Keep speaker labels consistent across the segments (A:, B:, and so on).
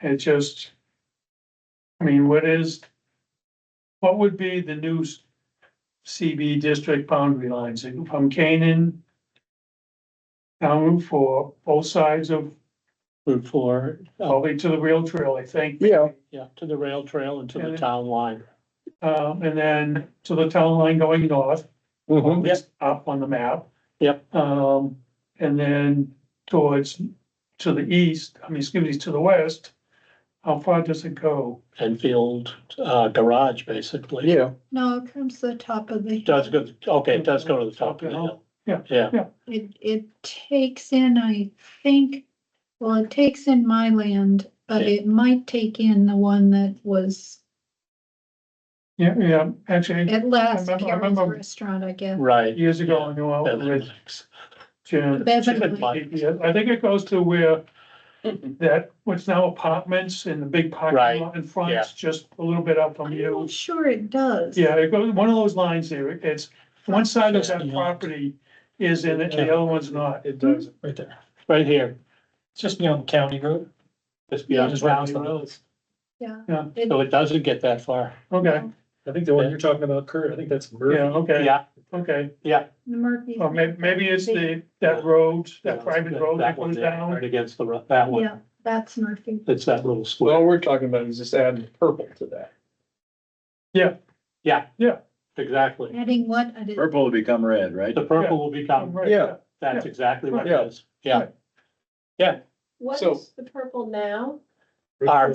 A: It just. I mean, what is? What would be the new s- CB district boundary lines And from Canaan? Down Route Four, both sides of,
B: Route four, uh,
A: probably to the rail trail, I think.
C: Yeah.
B: yeah, to the rail trail and to
A: Yeah.
B: the town line.
A: Um, and then to the town line going north.
D: Mm-hmm.
C: Mhm.
B: Yep.
A: Up on the map.
B: Yep.
A: Um, and then towards, to the east, I mean, excuse me, to the west. How far does it go?
B: Enfield, uh, garage, basically.
C: yeah,
E: No, it comes to the top of the.
B: It Does
E: hill.
B: go, okay, it does go to the top of the hill.
A: Yeah.
B: Yeah,
E: It, it takes in, I think, well, it takes in my land, but
B: Yeah.
E: it might take in the one that was
A: Yeah, yeah, actually,
E: at last
A: remember- I
E: Karen's
A: remember-
E: restaurant, I guess.
B: right.
A: years ago, I knew I was
B: Beverly
A: with
B: Lakes.
A: Jim.
E: Beverly
B: Lakes.
A: Yeah, I think it goes to where that, what's now apartments in the big
B: Mm-hmm. Right,
A: parking lot in front, it's just a little bit up from
E: I'm
A: you.
E: not sure it does.
A: Yeah, it goes, one of those lines there, it's, one side of that
B: Yeah.
A: property is in it, and the other one's not.
D: It does, right there.
B: Right here.
D: It's just beyond County Road.
B: Just beyond
D: Just
B: the
D: rounds
B: rounds.
D: the
B: So
D: roads.
E: Yeah.
A: Yeah.
E: It-
B: it doesn't get that far.
A: Okay,
D: I think the one you're talking about, Kurt, I think that's
A: yeah,
D: Murphy.
A: okay,
B: Yeah,
A: okay.
E: Murphy's.
A: Or may, maybe it's the, that road, that private road that
B: one
A: goes
B: there,
A: down.
B: Right against the, ro- that one.
E: Yeah, that's Murphy.
B: It's that little
C: well, all
B: square.
C: we're talking about is just adding purple to that.
B: Yeah.
A: Yeah.
B: Exactly.
E: Adding what? I didn't,
F: Purple will become red, right?
B: The purple will become,
A: Right,
C: Yeah.
B: that's exactly what
C: Yeah.
B: it is. Yeah.
G: What
C: So-
G: is the purple now?
B: Our Route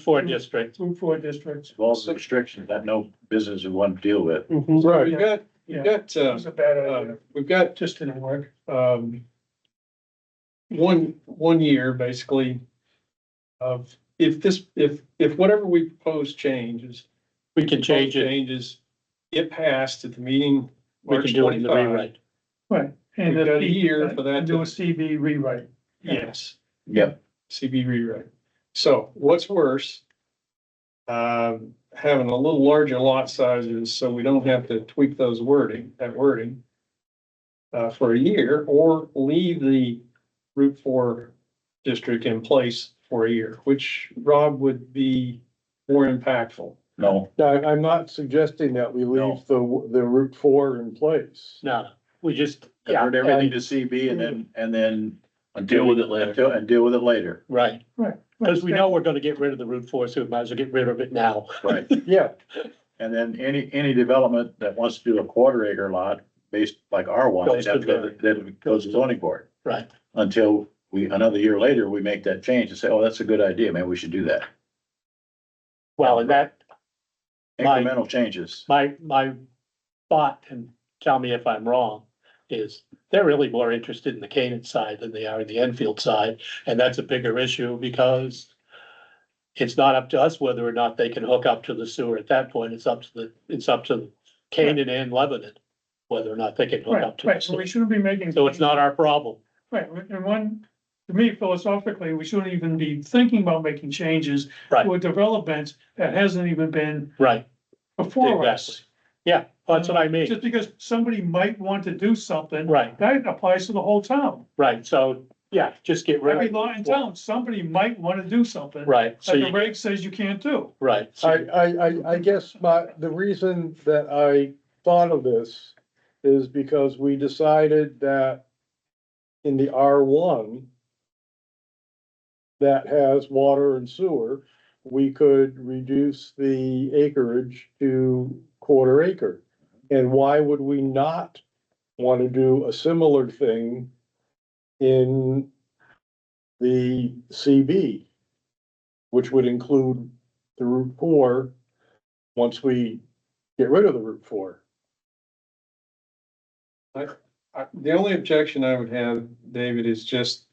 B: four district.
A: Route four districts,
F: All the restrictions that no business would want to deal with.
C: Right,
A: Yeah.
C: we've got,
A: Yeah.
C: we've got,
A: that
C: uh,
A: was a bad
C: uh,
A: idea,
C: we've got
A: just didn't work.
C: um, one, one year basically of if this, if, if whatever we propose changes.
B: We can change it.
C: Changes, get passed at the meeting.
B: We
C: March
B: can do it in the
C: 25.
B: rewrite.
A: Right.
C: We've
A: And
C: got
A: the
C: a year for that
A: Do a
C: to-
A: CB rewrite.
C: Yes,
F: Yep.
C: CB rewrite. So what's worse? Um, having a little larger lot sizes, so we don't have to tweak those wording, that wording. Uh, for a year or leave the Route Four district in place for a year, which Rob would be more impactful.
F: No,
H: No, I- I'm not suggesting that we leave the, the Route four in place.
B: No, we just, yeah,
F: convert everything to CB and then, and then deal with it later, and deal with it later,
B: right.
A: Right.
B: Because we know we're gonna get rid of the Route four, so we might as well get rid of it now.
F: right?
H: Yeah,
F: And then any, any development that wants to do a quarter acre lot based like R one,
B: Goes to
F: they'd have to go, to- they'd go to zoning board.
B: Right.
F: Until we, another year later, we make that change and say, oh, that's a good idea, maybe we should do that.
B: Well, and that, Right.
F: Incremental changes.
B: my, my thought, and tell me if I'm wrong, is they're really more interested in the Canaan side than they are in the Enfield side, and that's a bigger issue because it's not up to us whether or not they can hook up to the sewer at that point. It's up to the, it's up to Canaan and Lebanon, whether or not they can hook
A: Right,
B: up to the
A: right, so we
B: sewer.
A: shouldn't be making.
B: So it's not our problem.
A: Right, and one, to me philosophically, we shouldn't even be thinking about making changes.
B: Right.
A: To a development that hasn't even been
B: Right.
A: before
B: Exactly.
A: us.
B: Yeah, that's what I mean,
A: Uh, Just because somebody might want to do something.
B: Right.
A: That applies to the whole town.
B: right, so, yeah, just get
A: Every
B: rid of,
A: law in town, somebody might want to do something.
B: right, so
A: That the
B: you,
A: reg says you can't do.
B: right,
H: I,
B: so,
H: I, I, I guess my, the reason that I thought of this is because we decided that in the R one that has water and sewer, we could reduce the acreage to quarter acre. And why would we not want to do a similar thing in the CB? Which would include the Route Four, once we get rid of the Route Four.
C: I- The only objection I would have, David, is just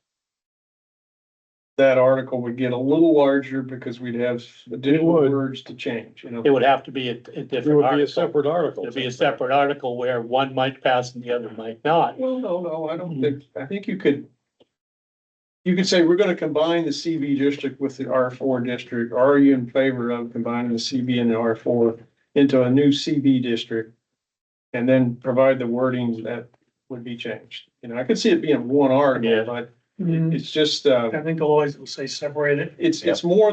C: that article would get a little larger because we'd have additional
H: would.
C: words to change, you know?
B: it would have to be a, a
H: It
B: different
H: would be a
B: article.
H: separate article.
B: It'd be a separate article where one might pass and the other might not,
C: Well, no, no, I don't think, I think you could. You could say, we're gonna combine the CB district with the R four district, are you in favor of combining the CB and the R four into a new CB district? And then provide the wordings that would be changed, you know, I could see it being one
B: Yeah.
C: article, but it-
A: I
B: Mm-hmm.
C: it's just, uh,
A: think the lawyers will say separate it.
C: it's, it's more